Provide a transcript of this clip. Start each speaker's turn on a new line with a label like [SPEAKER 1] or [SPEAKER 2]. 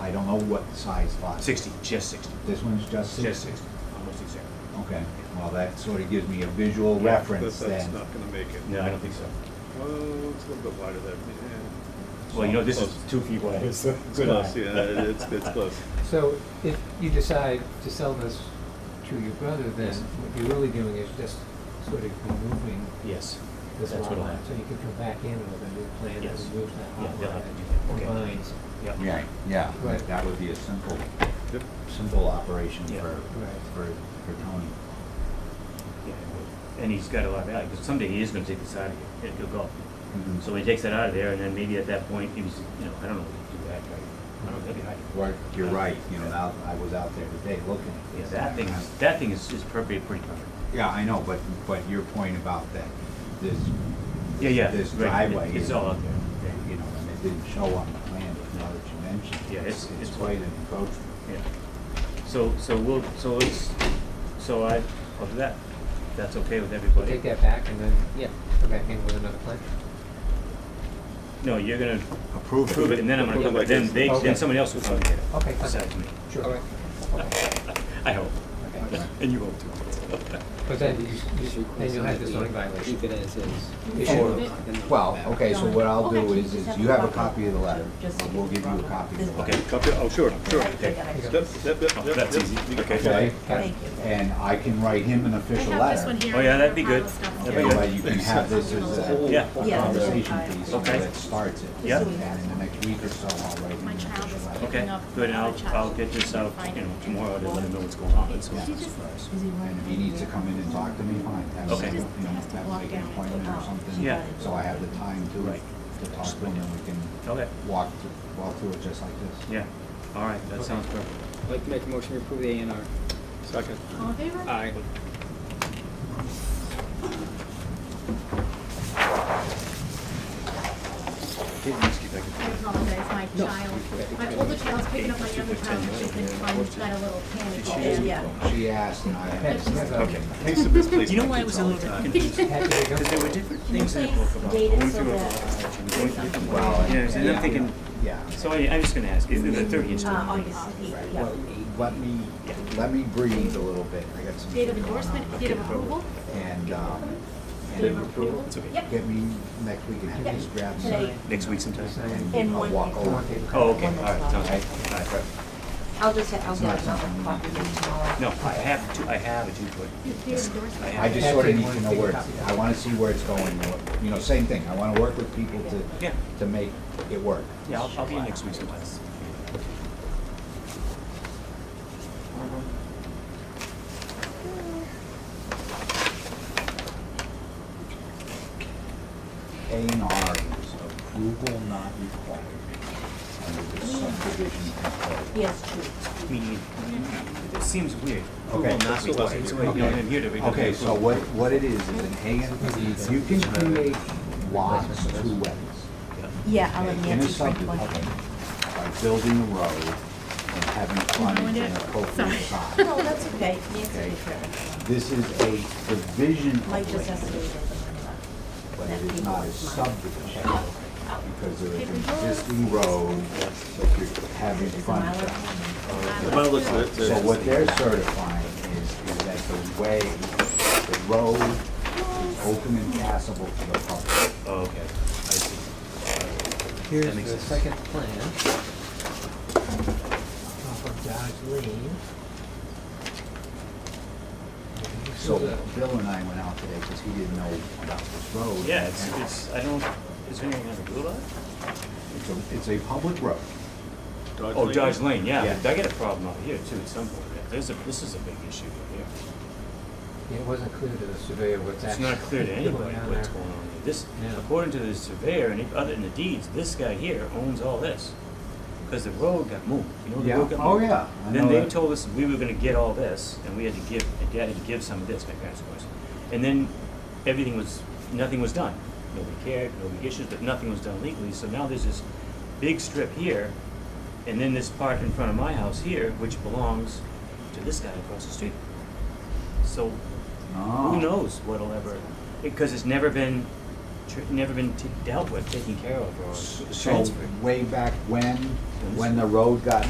[SPEAKER 1] I don't know what size lot.
[SPEAKER 2] Sixty, just sixty,
[SPEAKER 1] This one's just
[SPEAKER 2] just
[SPEAKER 1] sixty?
[SPEAKER 2] sixty, almost exactly.
[SPEAKER 1] Okay, well, that sort of gives me a visual
[SPEAKER 3] Yeah,
[SPEAKER 1] reference
[SPEAKER 3] that- That's
[SPEAKER 1] then.
[SPEAKER 3] not gonna make it.
[SPEAKER 2] No, I don't think so.
[SPEAKER 3] Well, it's a little bit wider there. Yeah.
[SPEAKER 2] Well, you know, this is two feet wide.
[SPEAKER 3] It's
[SPEAKER 2] so-
[SPEAKER 3] close, yeah, it- it's, it's close.
[SPEAKER 4] So if you decide to sell this to your brother, then what you're really doing is just sort of removing
[SPEAKER 2] Yes,
[SPEAKER 4] this
[SPEAKER 2] that's
[SPEAKER 4] lot
[SPEAKER 2] what'll
[SPEAKER 4] line. So
[SPEAKER 2] happen.
[SPEAKER 4] you can come back in with a new plan that
[SPEAKER 2] Yes.
[SPEAKER 4] removes that
[SPEAKER 2] Yeah,
[SPEAKER 4] lot
[SPEAKER 2] they'll
[SPEAKER 4] line.
[SPEAKER 2] have to
[SPEAKER 4] and
[SPEAKER 2] do that. Okay.
[SPEAKER 4] Combines,
[SPEAKER 2] yeah.
[SPEAKER 1] Yeah, yeah,
[SPEAKER 4] Right.
[SPEAKER 1] that would be a simple,
[SPEAKER 3] Yep.
[SPEAKER 1] simple operation
[SPEAKER 2] Yeah.
[SPEAKER 1] for,
[SPEAKER 4] Right.
[SPEAKER 1] for, for Tony.
[SPEAKER 2] Yeah, And he's got a lot of value, because someday he is gonna take this out of here, he'll go.
[SPEAKER 1] Mhm.
[SPEAKER 2] Mm-hmm. So he takes that out of there, and then maybe at that point, he was, you know, I don't know what to do that, right? I don't, that'd be hard.
[SPEAKER 1] Right, you're right, you know, now, I was out there today looking at
[SPEAKER 2] Yeah,
[SPEAKER 1] this.
[SPEAKER 2] that thing, is- that thing is, is pretty, pretty perfect.
[SPEAKER 1] Yeah, I know, but, but your point about that, this,
[SPEAKER 2] Yeah, yeah.
[SPEAKER 1] This
[SPEAKER 2] right, it-
[SPEAKER 1] driveway
[SPEAKER 2] It's
[SPEAKER 1] is-
[SPEAKER 2] all out there,
[SPEAKER 1] you know, and it didn't show on the plan, but now that you mentioned. it,
[SPEAKER 2] Yeah, it's- it's-
[SPEAKER 1] quite an encroachment.
[SPEAKER 2] yeah. So, so we'll, so let's, so I, I'll do that, If that's okay with
[SPEAKER 4] We'll
[SPEAKER 2] everybody.
[SPEAKER 4] take that back and then, yeah, come back in with another plan.
[SPEAKER 2] No, you're gonna
[SPEAKER 1] Approve it.
[SPEAKER 2] approve it, and then I'm
[SPEAKER 3] Approve it
[SPEAKER 2] gonna,
[SPEAKER 3] like
[SPEAKER 2] then
[SPEAKER 3] this.
[SPEAKER 2] they,
[SPEAKER 4] Okay.
[SPEAKER 2] then somebody else will come and get it,
[SPEAKER 4] Okay, fine.
[SPEAKER 2] besides me.
[SPEAKER 4] Sure. All right.
[SPEAKER 2] I hope,
[SPEAKER 1] Okay.
[SPEAKER 2] and you hope too.
[SPEAKER 4] But then you, you- then you'll have the zoning violation.
[SPEAKER 5] Leave it as is.
[SPEAKER 1] Or- Well, okay, so what I'll do is, is you have a copy of the letter,
[SPEAKER 6] Just-
[SPEAKER 1] and we'll give you a copy of the
[SPEAKER 2] Okay.
[SPEAKER 1] letter.
[SPEAKER 3] Copy, oh, sure, sure. Yep,
[SPEAKER 6] Okay.
[SPEAKER 3] yep, yep, yep.
[SPEAKER 2] Oh, that's
[SPEAKER 3] yep.
[SPEAKER 2] easy.
[SPEAKER 3] You got-
[SPEAKER 2] Okay.
[SPEAKER 1] Okay?
[SPEAKER 6] Thank you.
[SPEAKER 1] And I can write him an
[SPEAKER 7] I
[SPEAKER 1] official
[SPEAKER 7] have this
[SPEAKER 1] letter.
[SPEAKER 7] one here.
[SPEAKER 2] Oh, yeah, that'd be
[SPEAKER 7] Your
[SPEAKER 2] good.
[SPEAKER 7] file stuff
[SPEAKER 2] That'd
[SPEAKER 1] That
[SPEAKER 2] be
[SPEAKER 7] here.
[SPEAKER 2] good.
[SPEAKER 1] way you can have this as a
[SPEAKER 2] Yeah.
[SPEAKER 6] Yeah.
[SPEAKER 1] conversation piece so
[SPEAKER 2] Okay.
[SPEAKER 1] that starts it.
[SPEAKER 2] Yeah.
[SPEAKER 1] And in the next week or so, I'll write him
[SPEAKER 7] My
[SPEAKER 1] an
[SPEAKER 7] child
[SPEAKER 1] official
[SPEAKER 7] is
[SPEAKER 1] letter.
[SPEAKER 7] picking
[SPEAKER 2] Okay,
[SPEAKER 7] up.
[SPEAKER 2] good, and I'll,
[SPEAKER 7] another child
[SPEAKER 2] I'll get this
[SPEAKER 7] and
[SPEAKER 2] out,
[SPEAKER 7] find
[SPEAKER 2] you know,
[SPEAKER 7] it.
[SPEAKER 2] tomorrow, to let them know what's going on,
[SPEAKER 1] Yeah,
[SPEAKER 2] so.
[SPEAKER 7] She just-
[SPEAKER 1] first.
[SPEAKER 6] is he right?
[SPEAKER 1] And if he needs to come in and talk to me, fine. Have
[SPEAKER 2] Okay.
[SPEAKER 1] him,
[SPEAKER 2] She
[SPEAKER 7] just
[SPEAKER 1] you know,
[SPEAKER 7] has to
[SPEAKER 1] have him
[SPEAKER 7] walk
[SPEAKER 1] make an
[SPEAKER 7] down.
[SPEAKER 1] appointment or something.
[SPEAKER 2] Yeah.
[SPEAKER 1] So I have the time
[SPEAKER 2] Right.
[SPEAKER 1] to, to talk to him and we
[SPEAKER 2] Okay.
[SPEAKER 1] can walk, thr- walk through it just like this.
[SPEAKER 2] Yeah, all right, that sounds perfect.
[SPEAKER 5] I'd like to make a motion to approve the A and R.
[SPEAKER 3] Second.
[SPEAKER 7] All in favor?
[SPEAKER 2] Uh,
[SPEAKER 5] Aye.
[SPEAKER 7] I apologize, my
[SPEAKER 5] No.
[SPEAKER 7] child, my older child's picking up my younger child, and she's been fun, she's got a little panic.
[SPEAKER 6] Yeah.
[SPEAKER 1] She asked and I
[SPEAKER 4] That's- that's all.
[SPEAKER 2] Okay.
[SPEAKER 3] Thanks to this place.
[SPEAKER 2] You know why it was a little bit confusing?
[SPEAKER 4] Happy to go.
[SPEAKER 2] Because there were different things in the
[SPEAKER 6] Please
[SPEAKER 2] book about
[SPEAKER 6] date
[SPEAKER 2] going
[SPEAKER 6] it so
[SPEAKER 2] through a
[SPEAKER 6] that-
[SPEAKER 2] lot, and going through different
[SPEAKER 1] Well,
[SPEAKER 2] ways. Yes, and
[SPEAKER 1] yeah.
[SPEAKER 2] I'm thinking,
[SPEAKER 1] Yeah.
[SPEAKER 2] so I, I'm just gonna ask, is it the thirtieth?
[SPEAKER 6] Uh, August eighth,
[SPEAKER 1] Right.
[SPEAKER 6] yeah.
[SPEAKER 1] Well, Let me, let me breathe a little bit. I got some.
[SPEAKER 7] Date of
[SPEAKER 1] shit going on.
[SPEAKER 7] endorsement, date of approval?
[SPEAKER 1] And, um. and
[SPEAKER 7] Date of approval?
[SPEAKER 2] It's okay.
[SPEAKER 7] Yep.
[SPEAKER 1] Get me next week and have
[SPEAKER 6] Yep.
[SPEAKER 1] this grab
[SPEAKER 6] Today.
[SPEAKER 1] some
[SPEAKER 2] Next week sometime?
[SPEAKER 4] Sign.
[SPEAKER 1] and
[SPEAKER 6] In
[SPEAKER 1] I'll
[SPEAKER 6] one
[SPEAKER 1] walk
[SPEAKER 6] week.
[SPEAKER 1] over.
[SPEAKER 2] Oh, okay, all
[SPEAKER 6] One
[SPEAKER 2] right,
[SPEAKER 6] that's
[SPEAKER 2] sounds
[SPEAKER 1] Okay?
[SPEAKER 2] good. All right.
[SPEAKER 6] I'll just, ha- I'll
[SPEAKER 1] It's not
[SPEAKER 6] get another
[SPEAKER 1] something
[SPEAKER 6] copy tomorrow.
[SPEAKER 2] No, I have two, I have a two foot.
[SPEAKER 7] Your peer endorsement.
[SPEAKER 1] I just
[SPEAKER 4] That's
[SPEAKER 1] sort
[SPEAKER 4] it,
[SPEAKER 1] of need
[SPEAKER 4] one
[SPEAKER 1] to know
[SPEAKER 4] big
[SPEAKER 1] where,
[SPEAKER 4] copy.
[SPEAKER 1] it's- I want to see where it's going, and what- you know, same thing, I want to work with people
[SPEAKER 2] Yeah.
[SPEAKER 1] to, to make it work.
[SPEAKER 2] Yeah, I'll, I'll be in next week sometime.
[SPEAKER 1] A and R is approval not required under the subdivision control.
[SPEAKER 6] Yes, true.
[SPEAKER 2] Meaning, it seems weird.
[SPEAKER 1] Okay.
[SPEAKER 2] Well, not required, so, you know, I'm here to read the
[SPEAKER 1] Okay, so
[SPEAKER 2] approval.
[SPEAKER 1] what, what it is, is an A and, you can create lots two ways.
[SPEAKER 6] Yeah, I'll let
[SPEAKER 1] okay, In a
[SPEAKER 6] Nancy print
[SPEAKER 1] subdivision,
[SPEAKER 6] one.
[SPEAKER 1] by building a road and having frontage and appropriate
[SPEAKER 7] Sorry.
[SPEAKER 1] size.
[SPEAKER 6] No, that's okay, Nancy
[SPEAKER 1] Okay.
[SPEAKER 6] will care of it.
[SPEAKER 1] This is a division of
[SPEAKER 6] Mike just has to
[SPEAKER 1] land.
[SPEAKER 6] do it. with
[SPEAKER 1] but it is not a subdivision, because there is an existing road that you're having
[SPEAKER 6] the
[SPEAKER 1] frontage
[SPEAKER 6] mileage.
[SPEAKER 1] on.
[SPEAKER 3] Well, listen, it's,
[SPEAKER 1] So
[SPEAKER 3] it's,
[SPEAKER 1] what they're certifying is, is that the way, the road is open and passable to the public.
[SPEAKER 2] Oh, okay, I see.
[SPEAKER 4] Here's
[SPEAKER 2] makes
[SPEAKER 4] the
[SPEAKER 2] sense.
[SPEAKER 4] second plan. Off of Dodge Lane. And this
[SPEAKER 1] So
[SPEAKER 4] is a-
[SPEAKER 1] Bill and I went out today, because he didn't know about this road.
[SPEAKER 2] Yeah, it's,
[SPEAKER 1] And
[SPEAKER 2] it's, I don't, is there anything on the blue line?
[SPEAKER 1] It's a, it's a public road.
[SPEAKER 2] Oh, Dodge Lane, yeah,
[SPEAKER 1] Yeah.
[SPEAKER 2] I get a problem out here too at some point, Yeah, there's a, this is a big issue out here.
[SPEAKER 4] It wasn't clear to the surveyor what's
[SPEAKER 2] It's
[SPEAKER 4] actually.
[SPEAKER 2] not clear to anybody
[SPEAKER 4] going on
[SPEAKER 2] what's
[SPEAKER 4] there.
[SPEAKER 2] going on here. This,
[SPEAKER 4] Yeah.
[SPEAKER 2] according to the surveyor and other, in the deeds, this guy here owns all this. Because the road got moved, you know, the
[SPEAKER 1] Yeah.
[SPEAKER 2] road got moved.
[SPEAKER 1] Oh, yeah. I
[SPEAKER 2] Then
[SPEAKER 1] know
[SPEAKER 2] they
[SPEAKER 1] that.
[SPEAKER 2] told us we were gonna get all this, and we had to give, and dad had to give some of this, my parents of course. And then everything was, nothing was done. Nobody cared, no big issues, but nothing was done legally, so now there's this big strip here, and then this part in front of my house here, which belongs to this guy across the street. So
[SPEAKER 1] Ah. Oh.
[SPEAKER 2] who knows what'll ever, because it's never been, tr- never been t- dealt with, taken care of, or
[SPEAKER 1] So
[SPEAKER 2] transferred.
[SPEAKER 1] way back when, when the road got